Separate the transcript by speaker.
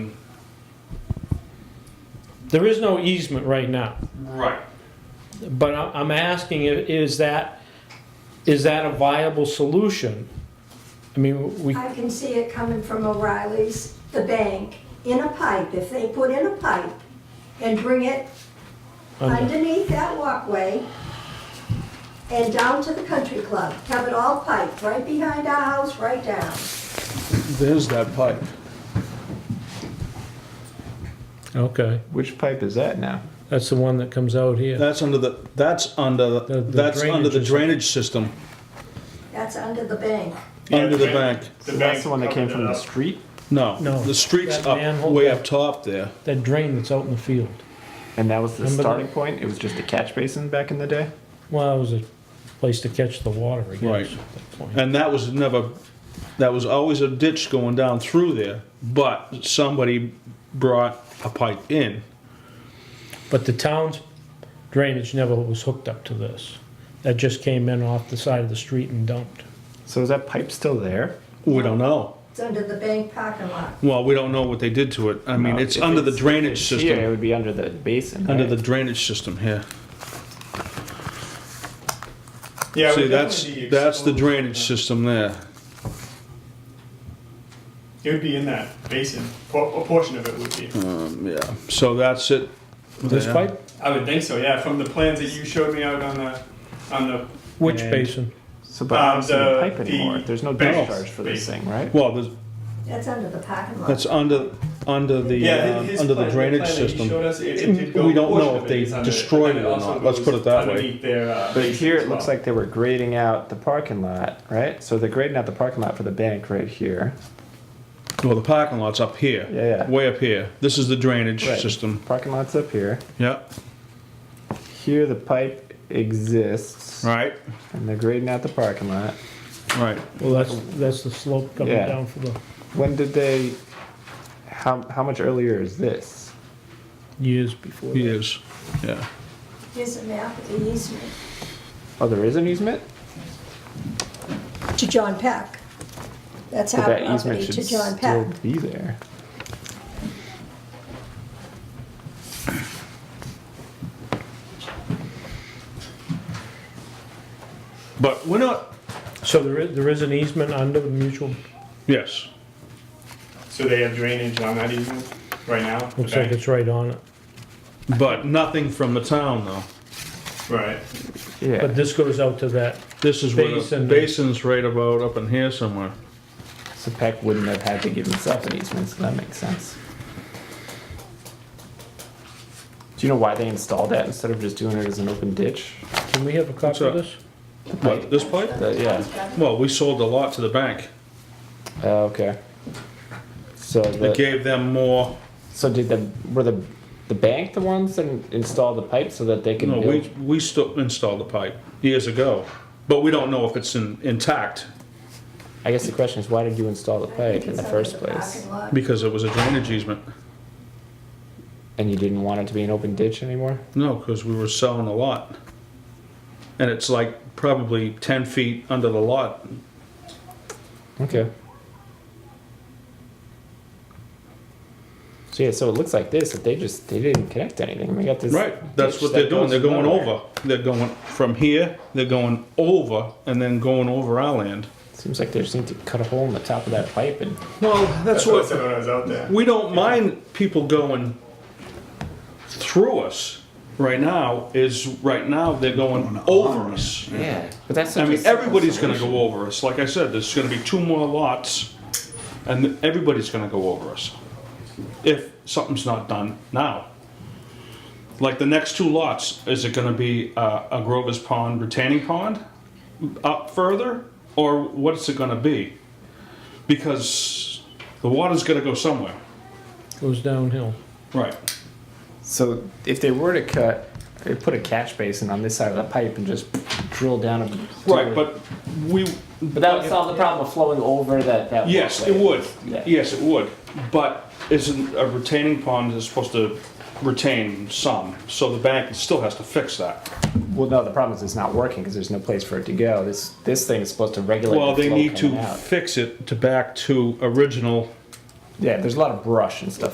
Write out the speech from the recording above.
Speaker 1: There is no easement right now,
Speaker 2: Right.
Speaker 1: but I- I'm asking, i- is that, is that a viable solution? I mean, we,
Speaker 3: I can see it coming from O'Reilly's, the bank, in a pipe, if they put in a pipe and bring it
Speaker 1: under-
Speaker 3: underneath that walkway and down to the country club, have it all piped, right behind our house, right down.
Speaker 4: There's that pipe.
Speaker 1: okay,
Speaker 5: Which pipe is that now?
Speaker 1: that's the one that comes out here.
Speaker 4: That's under the, that's under,
Speaker 1: The- the
Speaker 4: that's under the
Speaker 1: drainage is-
Speaker 4: drainage system,
Speaker 3: That's under the bank.
Speaker 1: Oh,
Speaker 4: under the bank.
Speaker 2: The
Speaker 5: That's
Speaker 2: bank
Speaker 5: the one that came
Speaker 2: covered
Speaker 5: from
Speaker 2: it
Speaker 5: the
Speaker 2: up.
Speaker 5: street?
Speaker 4: No,
Speaker 1: No,
Speaker 4: the street's
Speaker 1: that
Speaker 4: up,
Speaker 1: manhole
Speaker 4: way
Speaker 1: that-
Speaker 4: up top there.
Speaker 1: That drain that's out in the field.
Speaker 5: And that was the
Speaker 1: Remember
Speaker 5: starting
Speaker 1: that?
Speaker 5: point? It was just a catch basin back in the day?
Speaker 1: Well, it was a place to catch the water, I guess.
Speaker 4: Right.
Speaker 1: at that point.
Speaker 4: And that was never, that was always a ditch going down through there, but somebody brought a pipe in.
Speaker 1: But the town's drainage never was hooked up to this. That just came in off the side of the street and dumped.
Speaker 5: So is that pipe still there?
Speaker 4: We don't know.
Speaker 3: It's under the bank parking lot.
Speaker 4: Well, we don't know what they did to it. I mean,
Speaker 5: No,
Speaker 4: it's
Speaker 5: if
Speaker 4: under the
Speaker 5: it's- if
Speaker 4: drainage
Speaker 5: it's Here, it
Speaker 4: system,
Speaker 5: would be under the basin.
Speaker 4: under the
Speaker 5: right?
Speaker 4: drainage system here.
Speaker 2: Yeah,
Speaker 4: See,
Speaker 2: we
Speaker 4: that's,
Speaker 2: definitely
Speaker 4: that's the
Speaker 2: exposed.
Speaker 4: drainage system there.
Speaker 2: It would be in that basin. Po- A portion of it would be.
Speaker 4: Um, yeah, so that's it.
Speaker 1: This
Speaker 4: there.
Speaker 1: pipe,
Speaker 2: I would think so. Yeah, from the plans that you showed me out on the on the
Speaker 1: which
Speaker 5: And-
Speaker 1: basin?
Speaker 5: So, but
Speaker 2: Um,
Speaker 5: there's no
Speaker 2: the-
Speaker 5: pipe
Speaker 2: the
Speaker 5: anymore. There's no
Speaker 2: bank
Speaker 5: discharge for this
Speaker 2: basin.
Speaker 5: thing, right?
Speaker 4: Well, there's,
Speaker 3: That's under the parking lot.
Speaker 4: that's under, under the,
Speaker 2: yeah
Speaker 4: uh,
Speaker 2: his
Speaker 4: under
Speaker 2: plan-
Speaker 4: the drainage
Speaker 2: plan that
Speaker 4: system. Mm,
Speaker 2: He showed us, it, it did go
Speaker 4: We don't
Speaker 2: a portion
Speaker 4: know
Speaker 2: of
Speaker 4: if they
Speaker 2: is under-
Speaker 4: destroyed
Speaker 2: and
Speaker 4: it or
Speaker 2: also
Speaker 4: not. Let's
Speaker 2: goes
Speaker 4: put it that way.
Speaker 2: underneath Their, uh,
Speaker 5: But
Speaker 2: basin
Speaker 5: here
Speaker 2: as
Speaker 5: it looks
Speaker 2: well.
Speaker 5: like they were grading out the parking lot, right? So they're grading out the parking lot for the bank right here.
Speaker 4: Well, the parking lot's up here.
Speaker 5: Yeah, yeah.
Speaker 4: Way up here. This is the drainage
Speaker 5: Right.
Speaker 4: system.
Speaker 5: Parking lot's up here.
Speaker 4: Yeah.
Speaker 5: Here the pipe exists,
Speaker 4: Right.
Speaker 5: and they're grading out the parking lot.
Speaker 4: Right.
Speaker 1: Well, that's, that's the slope coming
Speaker 5: Yeah.
Speaker 1: down for the
Speaker 5: When did they? How how much earlier is this?
Speaker 1: years before.
Speaker 4: He
Speaker 1: that.
Speaker 4: is. Yeah.
Speaker 3: Here's a map of the easement
Speaker 5: Oh, there is an easement.
Speaker 3: to John Peck. That's
Speaker 5: So
Speaker 3: our
Speaker 5: that easement
Speaker 3: property
Speaker 5: should
Speaker 3: to John
Speaker 5: still
Speaker 3: Peck.
Speaker 5: be there.
Speaker 4: But we're not.
Speaker 1: So there is, there is an easement under the mutual,
Speaker 4: Yes.
Speaker 2: So they have drainage on that easement right now. the
Speaker 1: looks like
Speaker 2: bank?
Speaker 1: it's right on it.
Speaker 4: But nothing from the town, though.
Speaker 2: right.
Speaker 5: Yeah.
Speaker 1: But this goes out to that,
Speaker 4: This is where the
Speaker 1: Basin.
Speaker 4: basin's right about up in here somewhere.
Speaker 5: So Peck wouldn't have had to give himself an easement, so that makes sense. Do you know why they installed that instead of just doing it as an open ditch?
Speaker 1: can we have a copy of
Speaker 4: up?
Speaker 1: this?
Speaker 4: What, this pipe?
Speaker 5: That- yeah.
Speaker 4: Well, we sold the lot to the bank.
Speaker 5: Oh, okay. So
Speaker 4: It
Speaker 5: the,
Speaker 4: gave them more.
Speaker 5: so did the were the the bank the ones that installed the pipe so that they could
Speaker 4: No,
Speaker 5: build?
Speaker 4: we, we still installed the pipe years ago. But we don't know if it's in, intact
Speaker 5: I guess the question is why did you install the pipe in the first place?
Speaker 4: because it was a drainage easement.
Speaker 5: And you didn't want it to be an open ditch anymore?
Speaker 4: No, because we were selling a lot. And it's like probably 10 feet under the lot.
Speaker 5: Okay. So yeah, so it looks like this, that they just they didn't connect anything. They got this
Speaker 4: Right, that's
Speaker 5: ditch
Speaker 4: what
Speaker 5: that
Speaker 4: they're doing.
Speaker 5: goes
Speaker 4: They're going
Speaker 5: nowhere.
Speaker 4: over. They're going from here, they're going over, and then going over our land.
Speaker 5: Seems like they just need to cut a hole in the top of that pipe and
Speaker 4: Well,
Speaker 2: That's,
Speaker 4: that's
Speaker 2: what I
Speaker 4: what,
Speaker 2: said when I was out there.
Speaker 4: we don't mind people going through us right now, is right now they're going over us.
Speaker 5: Yeah. But that's
Speaker 4: I
Speaker 5: such a
Speaker 4: mean,
Speaker 5: simple
Speaker 4: everybody's gonna
Speaker 5: solution.
Speaker 4: go over us. Like I said, there's gonna be two more lots, and everybody's gonna go over us. If something's not done now. Like the next two lots, is it gonna be uh, a Grover's Pond retaining pond up further? Or what's it gonna be? Because the water's gonna go somewhere.
Speaker 1: Goes downhill.
Speaker 4: Right.
Speaker 5: So if they were to cut they put a catch basin on this side of the pipe and just drill down a
Speaker 4: Right, but we.
Speaker 5: But that would solve the problem of flowing over that, that
Speaker 4: Yes, it
Speaker 5: walkway.
Speaker 4: would.
Speaker 5: Yeah.
Speaker 4: Yes, it would. But isn't a retaining pond is supposed to retain some, so the bank still has to fix that.
Speaker 5: Well, no, the problem is it's not working because there's no place for it to go. This this thing is supposed to regulate.
Speaker 4: Well,
Speaker 5: the
Speaker 4: they
Speaker 5: flow
Speaker 4: need to
Speaker 5: coming out.
Speaker 4: fix it to back to original
Speaker 5: Yeah, there's a lot of brush and stuff